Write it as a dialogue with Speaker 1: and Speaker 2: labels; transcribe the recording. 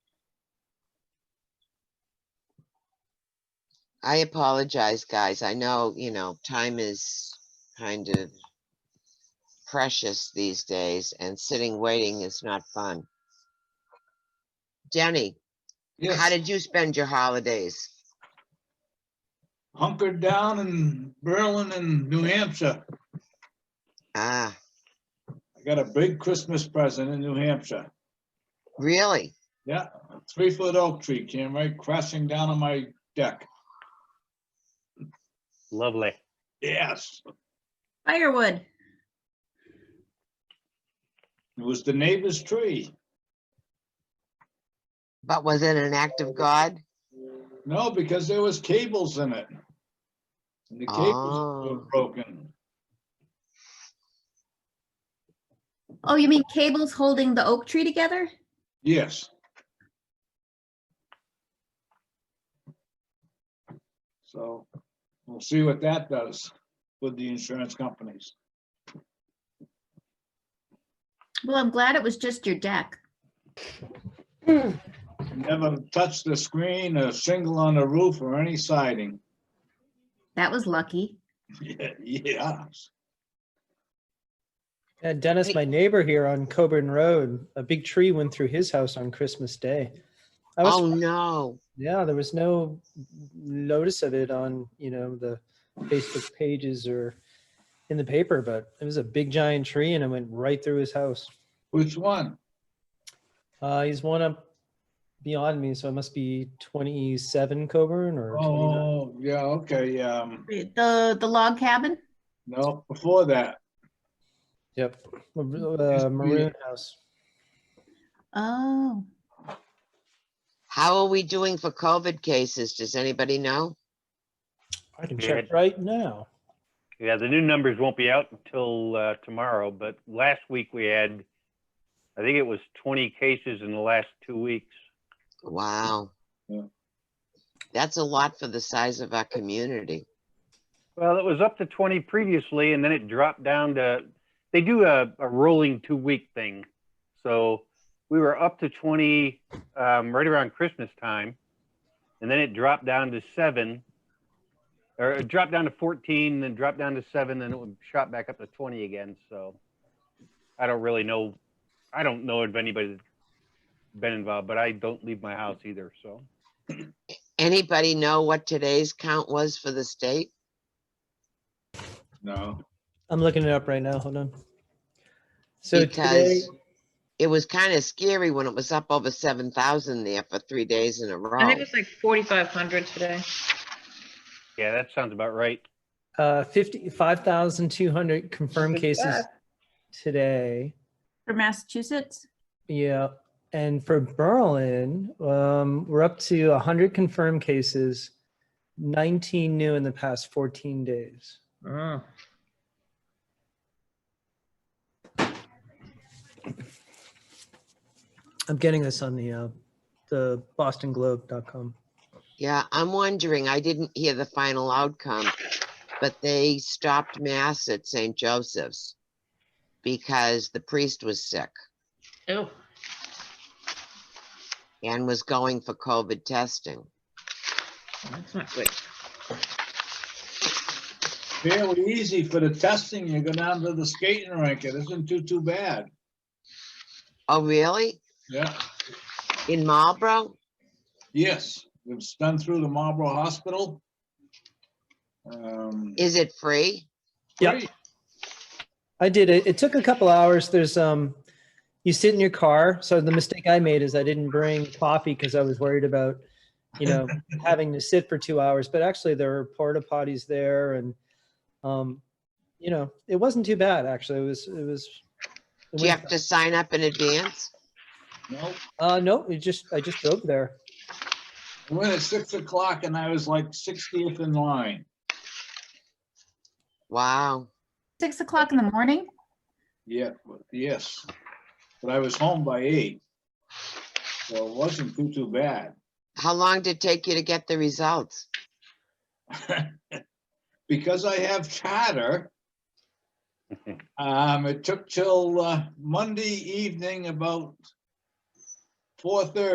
Speaker 1: I apologize, guys. I know, you know, time is kind of precious these days and sitting waiting is not fun. Jenny, how
Speaker 2: Yes,
Speaker 1: did you spend your holidays?
Speaker 2: hunkered down in Berlin and New Hampshire.
Speaker 1: Ah,
Speaker 2: I got a big Christmas present in New Hampshire.
Speaker 1: really?
Speaker 2: Yeah, a three-foot oak tree came right crashing down on my deck.
Speaker 3: Lovely.
Speaker 2: Yes,
Speaker 4: Firewood.
Speaker 2: it was the neighbor's tree.
Speaker 1: But was it an act of God?
Speaker 2: No, because there was cables in it. And the cables were
Speaker 1: Oh.
Speaker 2: broken.
Speaker 4: Oh, you mean cables holding the oak tree together?
Speaker 2: Yes. So we'll see what that does with the insurance companies.
Speaker 4: Well, I'm glad it was just your deck.
Speaker 2: Never touched the screen, a shingle on the roof or any siding.
Speaker 4: That was lucky.
Speaker 2: Yeah, Yeah,
Speaker 5: Yeah, Dennis,
Speaker 1: Wait.
Speaker 5: my neighbor here on Coburn Road, a big tree went through his house on Christmas Day. I was,
Speaker 1: Oh, no.
Speaker 5: yeah, there was no notice of it on, you know, the Facebook pages or in the paper, but it was a big giant tree and it went right through his house.
Speaker 2: which one?
Speaker 5: Uh, he's one up beyond me, so it must be 27 Coburn or 29.
Speaker 2: Oh, yeah, okay, um,
Speaker 4: The, the log cabin?
Speaker 2: no, before that,
Speaker 5: Yep,
Speaker 2: Just
Speaker 5: uh,
Speaker 2: read
Speaker 5: maroon house.
Speaker 4: Oh,
Speaker 1: How are we doing for COVID cases? Does anybody know?
Speaker 5: I can
Speaker 3: Jared.
Speaker 5: check right now.
Speaker 3: Yeah, the new numbers won't be out until uh, tomorrow, but last week we had, I think it was 20 cases in the last two weeks.
Speaker 1: Wow.
Speaker 2: Yeah.
Speaker 1: That's a lot for the size of our community.
Speaker 3: Well, it was up to 20 previously, and then it dropped down to, they do a, a rolling two week thing. So we were up to 20 um, right around Christmas time, and then it dropped down to seven, or it dropped down to 14, then dropped down to seven, then it would shot back up to 20 again. So I don't really know. I don't know if anybody's been involved, but I don't leave my house either. So
Speaker 1: Anybody know what today's count was for the state?
Speaker 2: no,
Speaker 5: I'm looking it up right now. Hold on. So today,
Speaker 1: Because it was kind of scary when it was up over seven thousand there for three days in a
Speaker 6: I
Speaker 1: row.
Speaker 6: think it's like forty-five hundred today.
Speaker 3: yeah, that sounds about right.
Speaker 5: uh, 50, 5,200 confirmed
Speaker 6: Good
Speaker 5: cases
Speaker 6: job.
Speaker 5: today.
Speaker 4: for Massachusetts?
Speaker 5: Yeah. And for Berlin, um, we're up to 100 confirmed cases, 19 new in the past 14 days. I'm getting this on the uh, the bostonglobe.com.
Speaker 1: Yeah, I'm wondering, I didn't hear the final outcome, but they stopped mass at St. Joseph's because the priest was sick
Speaker 6: Oh,
Speaker 1: and was going for COVID testing.
Speaker 6: that's not good.
Speaker 2: fairly easy for the testing, you go down to the skating rink, it isn't too, too bad,
Speaker 1: Oh, really?
Speaker 2: yeah,
Speaker 1: In Marlboro?
Speaker 2: yes, it's done through the Marlboro Hospital. Um,
Speaker 1: Is it free?
Speaker 5: Yeah.
Speaker 2: great.
Speaker 5: I did it. It took a couple hours. There's um, you sit in your car. So the mistake I made is I didn't bring coffee because I was worried about, you know, having to sit for two hours. But actually, there were porta potties there, and um, you know, it wasn't too bad actually. It was it was. it
Speaker 1: Do you
Speaker 5: went-
Speaker 1: have to sign up in advance?
Speaker 2: No,
Speaker 5: uh, no, it just I just drove there.
Speaker 2: I went at six o'clock and I was like sixtieth in line,
Speaker 1: Wow.
Speaker 4: Six o'clock in the morning?
Speaker 2: yeah, but- yes, but I was home by eight. So it wasn't too, too bad.
Speaker 1: How long did it take you to get the results?
Speaker 2: because I have charter, um, it took till uh, Monday evening about four thirty.